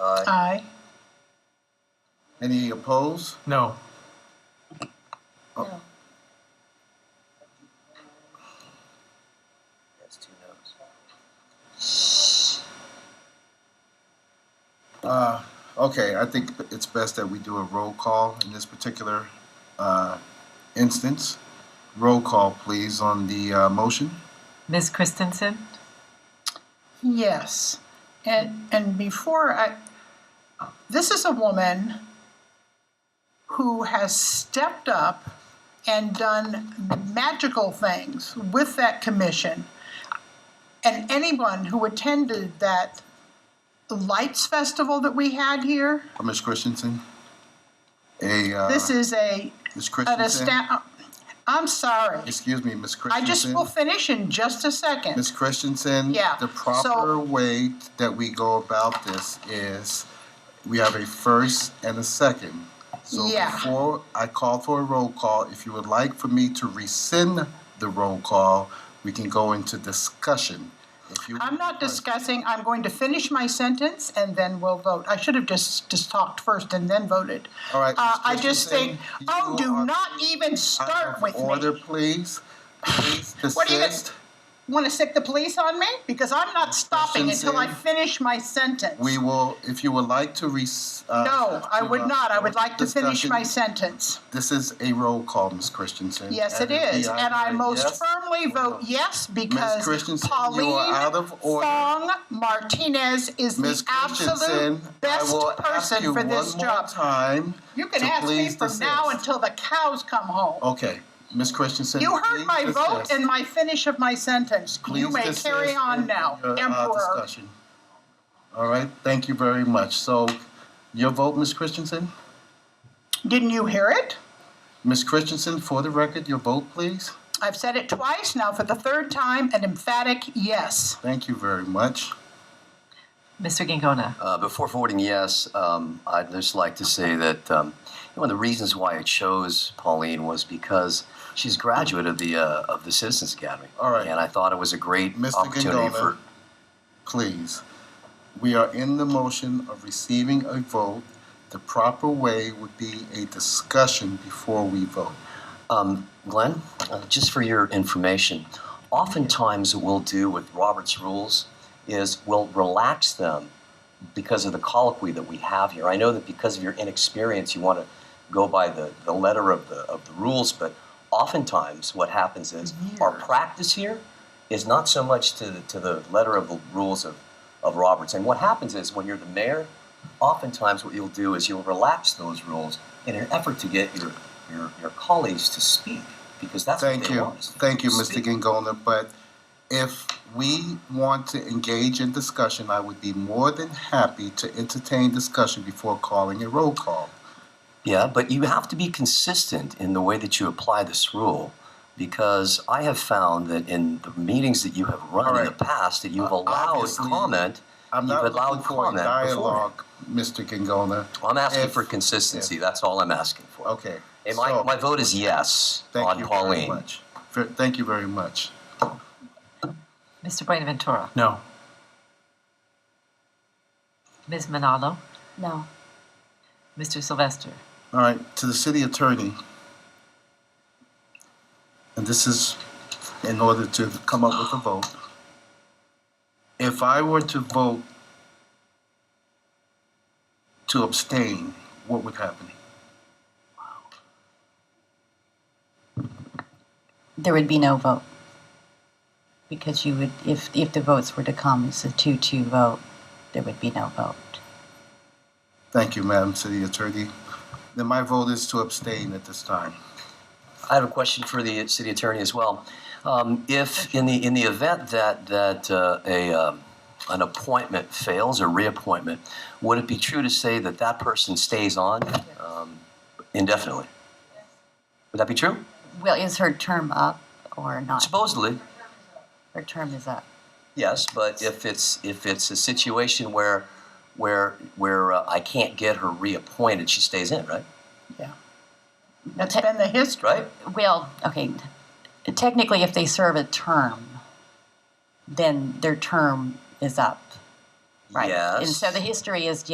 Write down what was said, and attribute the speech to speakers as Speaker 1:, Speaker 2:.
Speaker 1: Aye.
Speaker 2: Aye.
Speaker 1: Any opposed?
Speaker 3: No.
Speaker 2: No.
Speaker 4: That's two no's.
Speaker 1: Uh, okay, I think it's best that we do a roll call in this particular uh, instance. Roll call, please, on the uh, motion.
Speaker 5: Ms. Christensen?
Speaker 2: Yes. And, and before I, this is a woman who has stepped up and done magical things with that commission. And anyone who attended that lights festival that we had here,
Speaker 1: Uh, Ms. Christensen? A, uh,
Speaker 2: this is a,
Speaker 1: Ms.
Speaker 2: an
Speaker 1: Christensen?
Speaker 2: astound, I'm sorry.
Speaker 1: Excuse me, Ms.
Speaker 2: I
Speaker 1: Christensen?
Speaker 2: just will finish in just a second.
Speaker 1: Ms. Christensen?
Speaker 2: Yeah,
Speaker 1: The
Speaker 2: so-
Speaker 1: proper way that we go about this is we have a first and a second. So
Speaker 2: Yeah.
Speaker 1: before I call for a roll call, if you would like for me to rescind the roll call, we can go into discussion. If you
Speaker 2: I'm not discussing, I'm going to finish my sentence and then we'll vote. I should have just, just talked first and then voted.
Speaker 1: All right,
Speaker 2: Uh,
Speaker 1: Ms.
Speaker 2: I just think,
Speaker 1: Christensen,
Speaker 2: oh,
Speaker 1: you are-
Speaker 2: do not even
Speaker 1: Out
Speaker 2: start
Speaker 1: of
Speaker 2: with
Speaker 1: Order,
Speaker 2: me.
Speaker 1: please. Please
Speaker 2: What are you gonna-
Speaker 1: desist.
Speaker 2: Want to stick the police on me? Because I'm not stopping until I
Speaker 1: Christensen.
Speaker 2: finish my sentence.
Speaker 1: We will, if you would like to res. uh,
Speaker 2: No, I
Speaker 1: to, uh,
Speaker 2: would not. I would like to finish my
Speaker 1: discussion,
Speaker 2: sentence.
Speaker 1: This is a roll call, Ms. Christensen.
Speaker 2: Yes,
Speaker 1: And
Speaker 2: it
Speaker 1: if
Speaker 2: is.
Speaker 1: we
Speaker 2: And I
Speaker 1: either
Speaker 2: most
Speaker 1: yes
Speaker 2: firmly
Speaker 1: or no.
Speaker 2: vote yes because
Speaker 1: Christensen, you are out
Speaker 2: Pauline
Speaker 1: of order.
Speaker 2: Fong Martinez is
Speaker 1: Ms.
Speaker 2: the
Speaker 1: Christensen,
Speaker 2: absolute
Speaker 1: I
Speaker 2: best
Speaker 1: will ask
Speaker 2: person
Speaker 1: you
Speaker 2: for
Speaker 1: one
Speaker 2: this
Speaker 1: more
Speaker 2: job.
Speaker 1: time.
Speaker 2: You can
Speaker 1: to
Speaker 2: ask me
Speaker 1: please
Speaker 2: from now
Speaker 1: desist.
Speaker 2: until the cows come home.
Speaker 1: Okay, Ms. Christensen.
Speaker 2: You heard
Speaker 1: please
Speaker 2: my vote
Speaker 1: desist.
Speaker 2: and my finish of my sentence. You
Speaker 1: Please
Speaker 2: may
Speaker 1: desist
Speaker 2: carry on
Speaker 1: in
Speaker 2: now,
Speaker 1: your, uh,
Speaker 2: Emperor.
Speaker 1: discussion. All right, thank you very much. So your vote, Ms. Christensen?
Speaker 2: Didn't you hear it?
Speaker 1: Ms. Christensen, for the record, your vote, please.
Speaker 2: I've said it twice, now for the third time, an emphatic yes.
Speaker 1: Thank you very much.
Speaker 5: Mr. Gangona?
Speaker 4: Uh, before voting yes, um, I'd just like to say that um, one of the reasons why I chose Pauline was because she's a graduate of the uh, of the Citizens Academy.
Speaker 1: All right.
Speaker 4: And I thought it was a great
Speaker 1: Mr.
Speaker 4: opportunity
Speaker 1: Gondola.
Speaker 4: for.
Speaker 1: please. We are in the motion of receiving a vote. The proper way would be a discussion before we vote.
Speaker 4: Um, Glenn, uh, just for your information, oftentimes what we'll do with Robert's rules is we'll relax them because of the colloquy that we have here. I know that because of your inexperience, you want to go by the, the letter of the, of the rules, but oftentimes what happens is our practice here is not so much to the, to the letter of the rules of, of Roberts. And what happens is when you're the mayor, oftentimes what you'll do is you'll relax those rules in an effort to get your, your, your colleagues to speak because that's what
Speaker 1: Thank
Speaker 4: they
Speaker 1: you.
Speaker 4: want. us to do,
Speaker 1: Thank you,
Speaker 4: to
Speaker 1: Mr.
Speaker 4: speak.
Speaker 1: Gangona. But if we want to engage in discussion, I would be more than happy to entertain discussion before calling a roll call.
Speaker 4: Yeah, but you have to be consistent in the way that you apply this rule because I have found that in the meetings that you have run in
Speaker 1: Alright.
Speaker 4: the past that you've
Speaker 1: Uh,
Speaker 4: allowed
Speaker 1: obviously,
Speaker 4: comment.
Speaker 1: I'm
Speaker 4: you've
Speaker 1: not looking
Speaker 4: allowed
Speaker 1: for a
Speaker 4: comment before.
Speaker 1: dialogue, Mr. Gangona.
Speaker 4: I'm asking
Speaker 1: If-
Speaker 4: for consistency. That's all I'm asking for.
Speaker 1: Okay.
Speaker 4: And my,
Speaker 1: so-
Speaker 4: my vote is yes
Speaker 1: Thank
Speaker 4: on
Speaker 1: you very
Speaker 4: Pauline.
Speaker 1: much. Ver- Thank you very much.
Speaker 5: Mr. Buenaventura?
Speaker 3: No.
Speaker 5: Ms. Manalo?
Speaker 6: No.
Speaker 5: Mr. Sylvester?
Speaker 1: All right, to the city attorney. And this is in order to come up with a vote. If I were to vote to abstain, what would happen?
Speaker 6: There would be no vote. Because you would, if, if the votes were to come, it's a two-two vote, there would be no vote.
Speaker 1: Thank you, Madam City Attorney. Then my vote is to abstain at this time.
Speaker 4: I have a question for the city attorney as well. Um, if in the in the event that that uh, a um, an appointment fails or reappointment, would it be true to say that that person stays on um, indefinitely? Would that be true?
Speaker 6: Well, is her term up or not?
Speaker 4: Supposedly,
Speaker 6: Her term is up.
Speaker 4: yes. But if it's if it's a situation where where where uh, I can't get her reappointed, she stays in, right?
Speaker 2: Yeah. That's been the history.
Speaker 4: Right.
Speaker 6: Well, okay, technically, if they serve a term, then their term is up, right?
Speaker 4: Yes.
Speaker 6: And so the history is